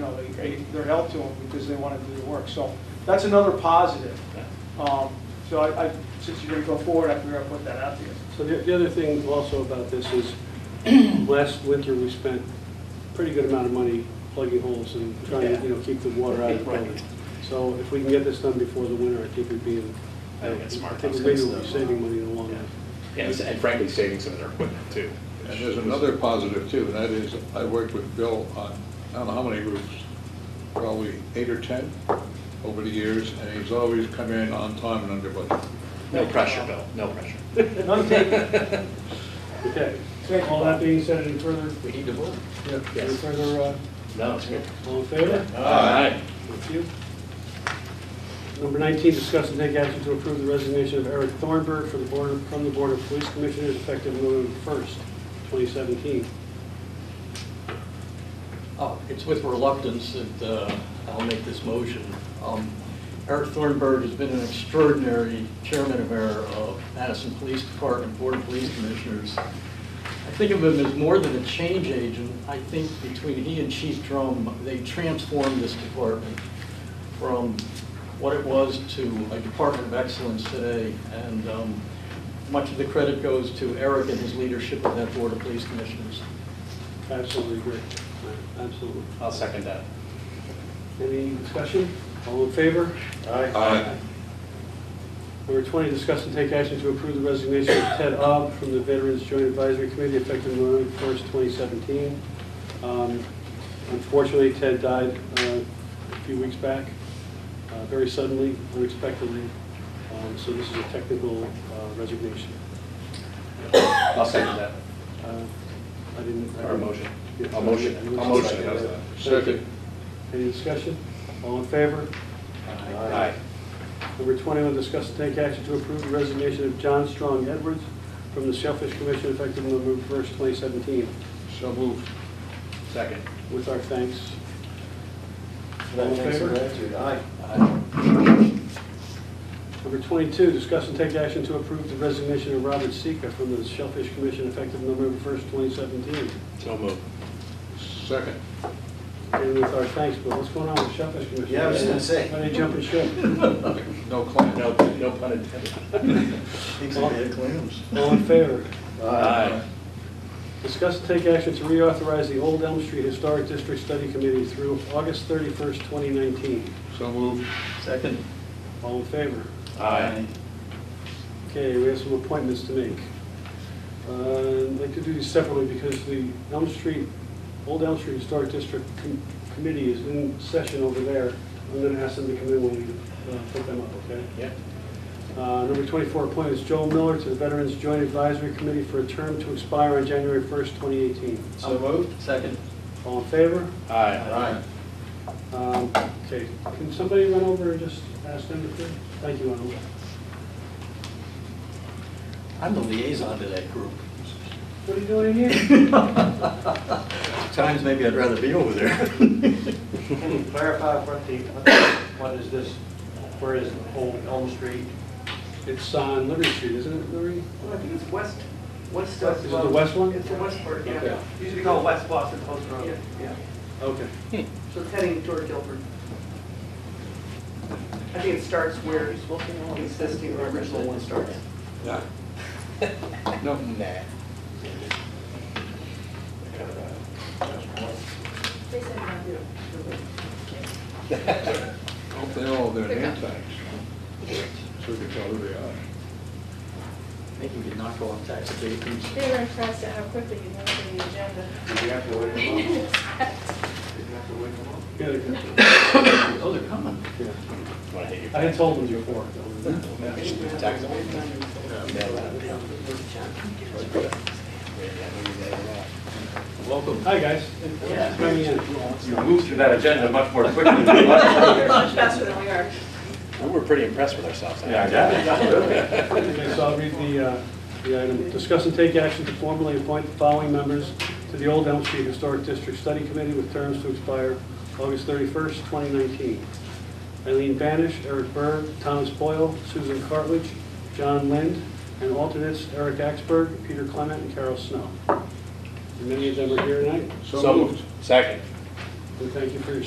know, they, they- they're held to them because they want to do the work. So that's another positive. Um, So I, I- since you're going to go forward, I figure I'll put that out to you. So the the other thing also about this is, last winter, we spent a pretty good amount of money plugging holes and trying to, you know, keep the water out of the building. So if we can get this done before the winter, I think we'd be, in- I think it's smart. I think we'd be saving money in the long run. Yes, and frankly, saving some of their equipment too. And there's another positive too, and that is, I worked with Bill on, I don't know how many roofs, probably eight or 10 over the years, and he's always come in on time and under budget. No pressure, Bill, no pressure. None taken. Okay. Thank you. All that being said, any further, We need to vote. any Yes. further, uh, No, it's good. all in favor? All right. Thank you. Number 19, discuss and take action to approve the resignation of Eric Thornburg for the board, from the Board of Police Commissioners effective November 1st, 2017. Uh, It's with reluctance that uh, I'll make this motion. Um, Eric Thornburg has been an extraordinary chairman and mayor of Madison Police Department, Board of Police Commissioners. I think of him as more than a change agent. I think between he and Chief Drum, they transformed this department from what it was to a department of excellence today. And um, much of the credit goes to Eric and his leadership of that Board of Police Commissioners. Absolutely agree. Absolutely. I'll second that. Any discussion? All in favor? Aye. Number 20, discuss and take action to approve the resignation of Ted Ob from the Veterans Joint Advisory Committee effective November 1st, 2017. Um, Unfortunately, Ted died uh, a few weeks back, uh, very suddenly, unexpectedly, Um, so this is a technical uh, resignation. I'll second that. Uh, I didn't... I Or a didn't- motion. Yeah. A motion. A motion. How's that? Thank you. Any discussion? All in favor? Aye. Number 21, discuss and take action to approve the resignation of John Strong Edwards from the Shellfish Commission effective November 1st, 2017, So moved. Second. with our thanks. All in Thanks for favor? gratitude. Aye. Number 22, discuss and take action to approve the resignation of Robert Sika from the Shellfish Commission effective November 1st, 2017. So moved. Second. And with our thanks, Bill, what's going on with Shellfish Commission? Yeah, I was gonna say. Why they jumping ship? No claim. No, no pun intended. Thanks for the clams. All in favor? Aye. Discuss and take action to reauthorize the Old Elm Street Historic District Study Committee through August 31st, 2019. So moved. Second. All in favor? Aye. Okay, we have some appointments to make. Uh, I'd like to do these separately because the Elm Street, Old Elm Street Historic District Com- Committee is in session over there. I'm going to ask them to come in when we uh, put them up, okay? Yeah. Uh, Number 24 appointment is Joel Miller to the Veterans Joint Advisory Committee for a term to expire on January 1st, 2018. So moved. Second. All in favor? Aye. Um, Okay, can somebody run over and just ask them to, clear? thank you, Arnold. I'm the liaison to that group. What are you doing in here? At Times maybe I'd rather be over there. Can you clarify what the, what is this, where is Old Elm Street? It's on Liberty Street, isn't it, Liberty? Well, I think it's west, west. um, Is it the west one? It's the westward, Okay. Oh. yeah. Used to be called West Boston Post Road. Yeah. Okay. So it's heading toward Guilford. I think it starts where existing or original one starts. Yeah. No. Hope they all have their name tags. So we can tell who they are. Make him get knocked off tax abatements. They were impressed at how quickly you went through the agenda. Did you have to wait a month? Did you have to wait a month? Yeah, they can- Oh, they're coming. Want to hit I had told them before. your tax abatement? Welcome. Hi, guys. Thanks for coming in. You moved through that agenda much more quickly than Much faster than we are. We were pretty impressed with ourselves. I think. Okay, so I'll read the, uh, the item. Discuss and take action to formally appoint the following members to the Old Elm Street Historic District Study Committee with terms to expire August 31st, 2019. Eileen Banish, Eric Berg, Thomas Boyle, Susan Cartledge, John Lind, and alternates Eric Axberg, Peter Clement, and Carol Snow. And Many of them are here tonight, So moved. Second. and thank you for your